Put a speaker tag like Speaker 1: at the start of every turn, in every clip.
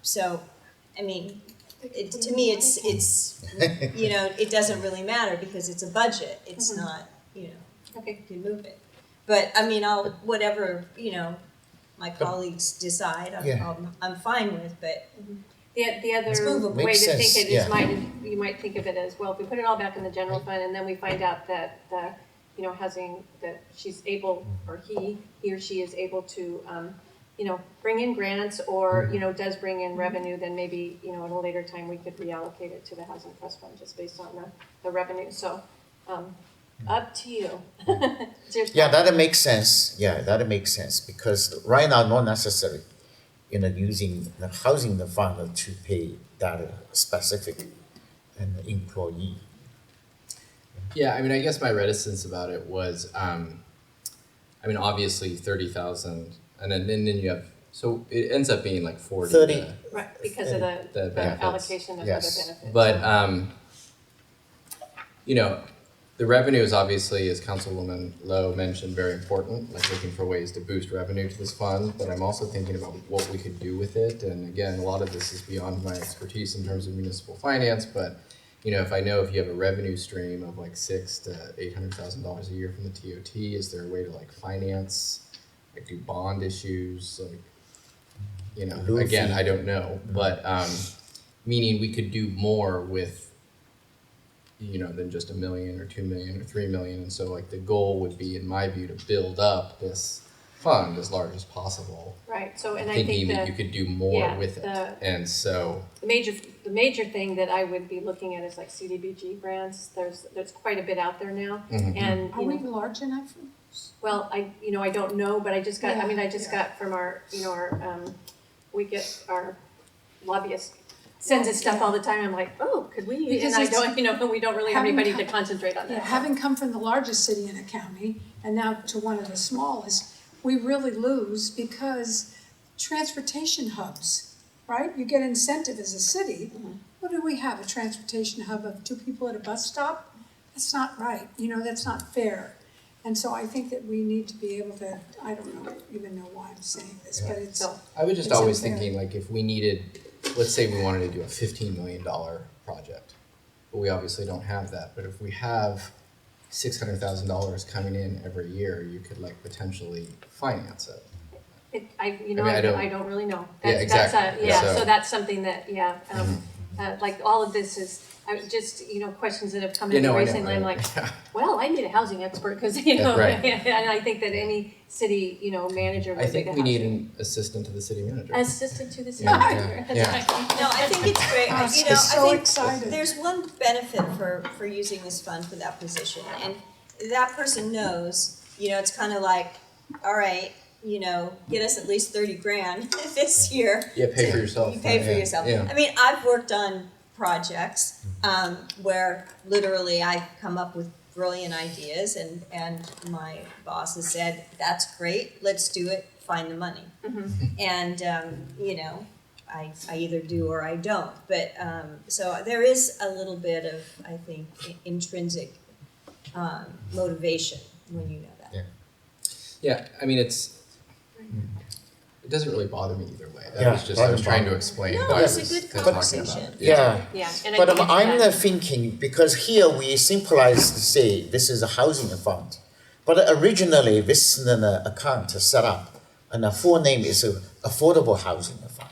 Speaker 1: So, I mean, it, to me, it's, it's, you know, it doesn't really matter because it's a budget, it's
Speaker 2: Mhm.
Speaker 1: not, you know,
Speaker 2: Okay.
Speaker 1: you can move it. But, I mean, I'll, whatever, you know, my colleagues decide, I'm,
Speaker 3: Yeah.
Speaker 1: I'm, I'm fine with, but,
Speaker 2: The, the
Speaker 1: It's
Speaker 2: other
Speaker 1: movable.
Speaker 2: way
Speaker 3: Makes
Speaker 2: to think
Speaker 3: sense,
Speaker 2: it
Speaker 3: yeah.
Speaker 2: is might, you might think of it as, well, if we put it all back in the general fund and then we find out that the, you know, housing, that she's able, or he, he or she is able to, um, you know, bring in grants or, you know, does bring in revenue, then maybe, you know, at a later time, we could reallocate it to the housing trust fund just based on the, the revenue, so, um, up to you. It's your
Speaker 3: Yeah,
Speaker 2: thought.
Speaker 3: that'll make sense. Yeah, that'll make sense because right now, not necessary, you know, using the housing fund to pay that specific an employee.
Speaker 4: Yeah, I mean, I guess my reticence about it was, um, I mean, obviously thirty thousand, and then and then you have so it ends up being like forty.
Speaker 3: 30.
Speaker 4: uh,
Speaker 2: Right, because of the,
Speaker 4: The
Speaker 2: the
Speaker 4: benefits.
Speaker 2: allocation of other
Speaker 3: Yes.
Speaker 2: benefits.
Speaker 4: But um, you know, the revenue is obviously, as Councilwoman Lowe mentioned, very important. Like looking for ways to boost revenue to this fund, but I'm also thinking about what we could do with it. And again, a lot of this is beyond my expertise in terms of municipal finance, but you know, if I know if you have a revenue stream of like six to eight hundred thousand dollars a year from the TOT, is there a way to like finance, like do bond issues, like you know,
Speaker 3: Loofy.
Speaker 4: again, I don't know, but um, meaning we could do more with you know than just a million or two million or three million, and so like the goal would be, in my view, to build up this fund as large as possible,
Speaker 2: Right, so, Oh, and I
Speaker 4: thinking
Speaker 2: think
Speaker 4: that you
Speaker 2: the,
Speaker 4: could do more
Speaker 2: yeah,
Speaker 4: with it,
Speaker 2: the-
Speaker 4: and so.
Speaker 2: the major, the major thing that I would be looking at is like CDBG grants, there's, there's quite a bit out there now.
Speaker 4: Mhm.
Speaker 2: And,
Speaker 5: Are
Speaker 2: you
Speaker 5: we
Speaker 2: know,
Speaker 5: large enough?
Speaker 2: well, I, you know, I don't know, but I just got, I mean, I just
Speaker 5: Yeah.
Speaker 2: got from our, you know, our, um, we get our lobbyist sends us stuff all the time, I'm like, oh, could we, and
Speaker 5: Because
Speaker 2: I
Speaker 5: it's-
Speaker 2: don't, you know, but we don't really have
Speaker 5: having
Speaker 2: anybody
Speaker 5: co-
Speaker 2: to concentrate on that.
Speaker 5: Having come from the largest city in a county and now to one of the smallest, we really lose because transportation hubs, right? You get incentive as a city. What do we have, a transportation hub of two people at a bus stop? That's not right, you know, that's not fair. And so I think that we need to be able to, I don't know, even know why I'm saying this, but it's,
Speaker 2: So-
Speaker 4: I was just
Speaker 5: It's
Speaker 4: always
Speaker 5: unfair.
Speaker 4: thinking like if we needed, let's say we wanted to do a fifteen million dollar project, but we obviously don't have that. But if we have six hundred thousand dollars coming in every year, you could like potentially finance it.
Speaker 2: It, I, you know,
Speaker 4: mean, I
Speaker 2: I don't,
Speaker 4: don't-
Speaker 2: I don't really know.
Speaker 4: Yeah,
Speaker 2: That's, that's
Speaker 4: exactly.
Speaker 2: a, yeah,
Speaker 4: So- Mm-hmm.
Speaker 2: so that's something that, yeah, um, uh, like all of this is, I was just, you know, questions that have come
Speaker 4: You
Speaker 2: in
Speaker 4: know, I know.
Speaker 2: recently,
Speaker 4: I
Speaker 2: I'm
Speaker 4: know.
Speaker 2: like, well, I need a housing expert, cause you
Speaker 4: Yeah,
Speaker 2: know,
Speaker 4: right.
Speaker 2: and I think that any city, you know, manager
Speaker 4: I
Speaker 2: would think
Speaker 4: think
Speaker 2: a
Speaker 4: we need
Speaker 2: housing.
Speaker 4: an assistant to the city manager.
Speaker 2: Assistant to the city
Speaker 4: Yeah,
Speaker 2: manager.
Speaker 4: yeah, yeah.
Speaker 1: no, I think it's great, I- you know, I
Speaker 3: I'm
Speaker 5: so
Speaker 1: think
Speaker 5: excited.
Speaker 1: there's one benefit for, for using this fund for that position, and that person knows, you know, it's kinda like, all right, you know, get us at least thirty grand this year,
Speaker 4: Yeah, pay for yourself.
Speaker 1: You pay for
Speaker 4: Yeah,
Speaker 1: yourself.
Speaker 4: Yeah. Mm-hmm.
Speaker 1: I mean, I've worked on projects um, where literally I come up with brilliant ideas, and and my boss has said, "That's great. Let's do it. Find the money."
Speaker 2: Mm-hmm.
Speaker 1: And um, you know, I I either do or I don't. But um, so there is a little bit of I think i- intrinsic um, motivation when you know that.
Speaker 4: Yeah, I mean, it's, it doesn't really bother me either way. That
Speaker 3: Yeah,
Speaker 4: was just, I was
Speaker 3: doesn't
Speaker 4: trying
Speaker 3: bother
Speaker 4: to
Speaker 3: me.
Speaker 4: explain
Speaker 1: No,
Speaker 4: why I
Speaker 3: it's a
Speaker 4: was
Speaker 1: good
Speaker 4: talking about
Speaker 1: conversation.
Speaker 4: it.
Speaker 3: Yeah.
Speaker 2: Yeah, and I
Speaker 3: But
Speaker 2: think it's
Speaker 3: I'm, I'm
Speaker 2: that-
Speaker 3: uh, thinking because here we simplize to say this is a housing fund, but originally this is an uh, account set up, and the full name is uh, Affordable Housing Fund.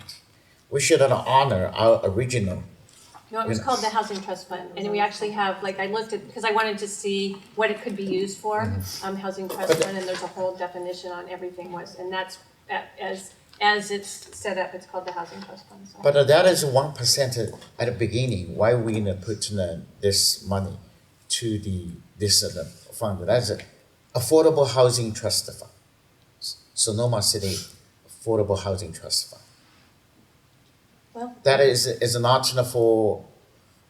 Speaker 3: We should honor our original.
Speaker 2: No, it was
Speaker 3: Yeah.
Speaker 2: called the Housing Trust Fund, and we actually have, like, I looked at, because I wanted to see what it could be used for,
Speaker 4: Mm-hmm.
Speaker 2: um, Housing Trust
Speaker 3: But-
Speaker 2: Fund, and there's a whole definition on everything was, and that's, a- as, as it's set up, it's called the Housing Trust Fund, so.
Speaker 3: But that is one percent at the beginning. Why we you know, put uh, this money to the this uh, the fund? That's it. Affordable Housing Trust Fund, S- Sonoma City Affordable Housing Trust Fund.
Speaker 2: Well-
Speaker 3: that is is not for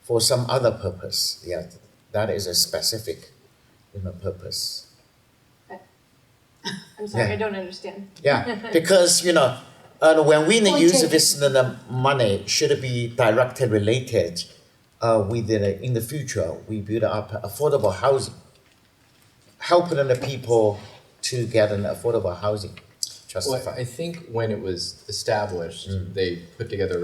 Speaker 3: for some other purpose. Yeah, that is a specific you know purpose.
Speaker 2: I'm sorry, I
Speaker 3: Yeah.
Speaker 2: don't understand.
Speaker 3: Yeah, because you know, uh, when we
Speaker 5: Point
Speaker 3: use
Speaker 5: taken.
Speaker 3: this the- the money should be directly related uh, with the, in the future we build up affordable housing, helping the people to get an affordable housing. Just
Speaker 4: Well, I think when it was established, they put together